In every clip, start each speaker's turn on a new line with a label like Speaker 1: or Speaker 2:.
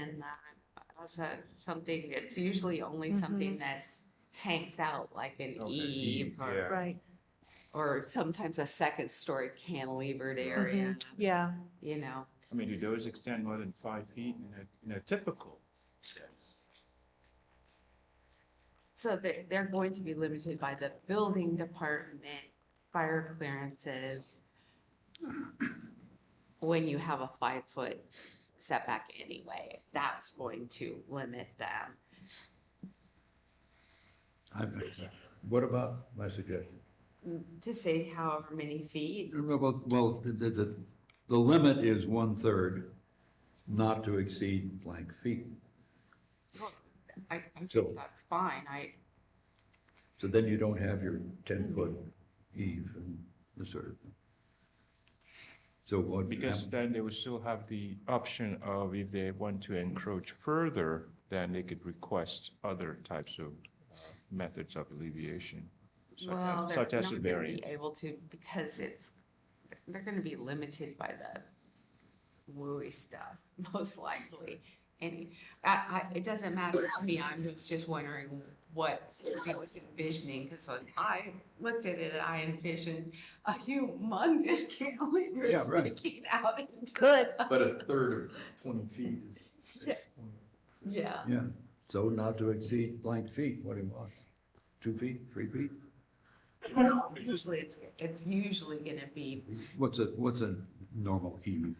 Speaker 1: And uh, also something, it's usually only something that's hangs out like an
Speaker 2: Okay,
Speaker 1: eave
Speaker 2: eave,
Speaker 1: or,
Speaker 2: yeah.
Speaker 3: Right,
Speaker 1: or sometimes a second story cantilevered area,
Speaker 3: yeah,
Speaker 1: you know.
Speaker 2: I mean, do those extend more than five feet in a, in a typical?
Speaker 1: So they're, they're going to be limited by the building department, fire clearances. When you have a five foot setback anyway, that's going to limit them.
Speaker 4: I- What about my suggestion?
Speaker 1: To say however many feet,
Speaker 4: Well, well, the, the- the, the limit is one-third, not to exceed blank feet.
Speaker 1: well, I, I
Speaker 4: So-
Speaker 1: think that's fine, I,
Speaker 4: So then you don't have your ten-foot eve and this sort of thing. So what?
Speaker 2: Because then they would still have the option of if they want to encroach further, then they could request other types of uh, methods of alleviation. such as-
Speaker 1: Well, they're not
Speaker 2: Such as a
Speaker 1: gonna be
Speaker 2: variance.
Speaker 1: able to, because it's, they're gonna be limited by the wooey stuff, most likely. And I, I, it doesn't matter to me, I'm just- just wondering what I was envisioning, because when I looked at it, I envisioned a humongous cantilever
Speaker 4: Yeah, right.
Speaker 1: sticking out. into-
Speaker 3: Could.
Speaker 5: But a third of twenty feet is six point.
Speaker 1: Yeah,
Speaker 4: Yeah, so not to exceed blank feet, what do you want? Two feet, three feet?
Speaker 1: usually it's, it's usually gonna be
Speaker 4: What's a, what's a normal eve?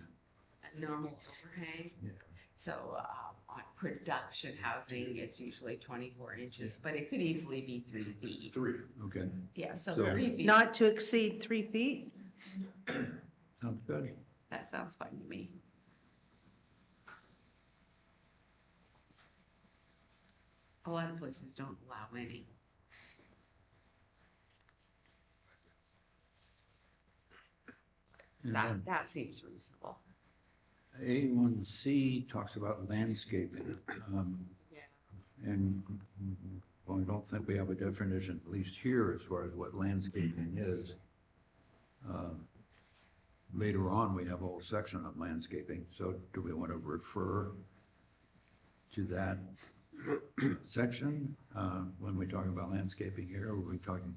Speaker 1: a normal overhang.
Speaker 4: Yeah.
Speaker 1: So um, on production housing, it's usually 24 inches, but it could easily be three feet.
Speaker 5: Three.
Speaker 4: Okay,
Speaker 1: Yeah, so
Speaker 4: So-
Speaker 1: three feet,
Speaker 3: not to exceed three feet?
Speaker 4: sounds good.
Speaker 1: that sounds fine to me. A lot of places don't allow any.
Speaker 4: And
Speaker 1: That,
Speaker 4: then
Speaker 1: that seems reasonable.
Speaker 4: A1C talks about landscaping. Um,
Speaker 1: Yeah.
Speaker 4: And, well, I don't think we have a definition, at least here, as far as what landscaping is. Um, Later on, we have a whole section on landscaping, so do we want to refer to that section uh, when we talk about landscaping here? Or Are we talking,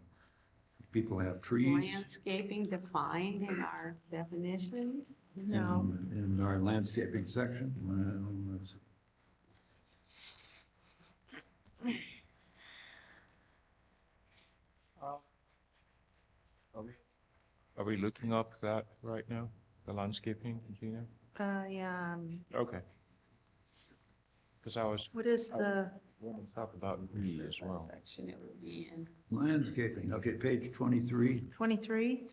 Speaker 4: people have trees?
Speaker 1: Landscaping defined in our definitions?
Speaker 3: No,
Speaker 4: In in our landscaping section, well, let's see.
Speaker 2: Are we looking up that right now, the landscaping, Gina?
Speaker 3: uh, yeah, um,
Speaker 2: Okay. Because I was,
Speaker 3: what is the,
Speaker 2: wanting to talk about E as
Speaker 1: What
Speaker 2: well.
Speaker 1: Section it would be in.
Speaker 4: Landscaping, okay, page 23.
Speaker 3: twenty-three?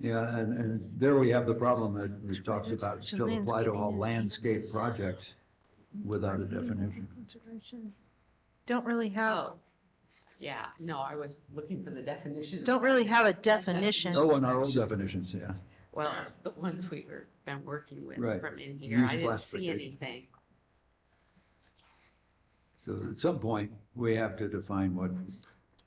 Speaker 4: Yeah, and, and there we have the problem that we talked
Speaker 3: It's
Speaker 4: about,
Speaker 3: to
Speaker 4: still apply to all
Speaker 3: landscaping and-
Speaker 4: landscape projects without a definition.
Speaker 3: Don't really have,
Speaker 1: Oh, yeah, no, I was looking for the definition.
Speaker 3: don't really have a definition.
Speaker 4: Oh, and our old definitions, yeah.
Speaker 1: Well, the ones we've been working with
Speaker 4: Right.
Speaker 1: from in here, I
Speaker 4: Used
Speaker 1: didn't
Speaker 4: last
Speaker 1: see
Speaker 4: week.
Speaker 1: anything.
Speaker 4: So at some point, we have to define what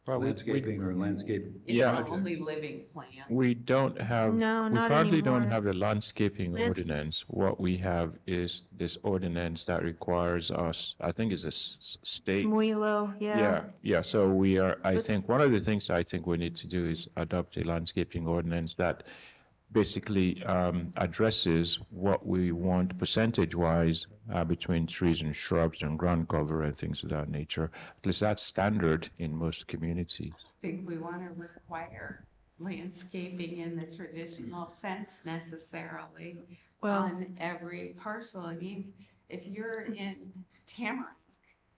Speaker 2: Well, we- we-
Speaker 4: landscaping or landscape
Speaker 1: It's
Speaker 2: Yeah.
Speaker 4: project.
Speaker 1: only living plants.
Speaker 2: We don't have.
Speaker 3: No,
Speaker 2: we
Speaker 3: not
Speaker 2: currently don't
Speaker 3: anymore.
Speaker 2: have the landscaping
Speaker 3: Lands-
Speaker 2: ordinance. What we have is this ordinance that requires us, I think it's a s- s- state.
Speaker 3: Muilo, yeah,
Speaker 2: Yeah, yeah, so we are, I
Speaker 3: But-
Speaker 2: think, one of the things I think we need to do is adopt a landscaping ordinance that basically um, addresses what we want percentage-wise uh, between trees and shrubs and ground cover and things of that nature. At least that's standard in most communities.
Speaker 1: Think we want to require landscaping in the traditional sense necessarily
Speaker 3: Well-
Speaker 1: on every parcel. I mean, if you're in Tamarack,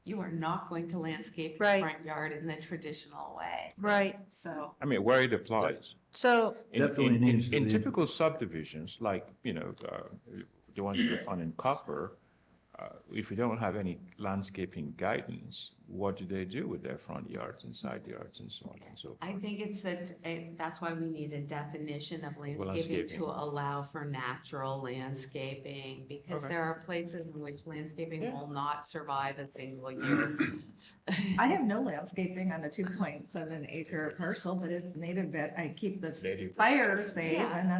Speaker 1: you are not going to landscape your
Speaker 3: Right.
Speaker 1: front yard in the traditional way.
Speaker 3: right,
Speaker 1: So,
Speaker 2: I mean, where it applies.
Speaker 3: so,
Speaker 2: In-
Speaker 4: Definitely
Speaker 2: in- in-
Speaker 4: needs to
Speaker 2: In
Speaker 4: be-
Speaker 2: typical subdivisions, like, you know, uh, the ones we found in Copper, uh, if you don't have any landscaping guidance, what do they do with their front yards and side yards and so on and so?
Speaker 1: I think it's that, eh, that's why we need a definition of landscaping
Speaker 2: landscaping.
Speaker 1: to allow for natural landscaping, because
Speaker 2: Okay.
Speaker 1: there are places in which landscaping will not survive a single year.
Speaker 3: I have no landscaping on a two point seven acre parcel, but it's native, vet. I keep the
Speaker 2: Native.
Speaker 3: fire safe
Speaker 1: Yeah.
Speaker 3: and then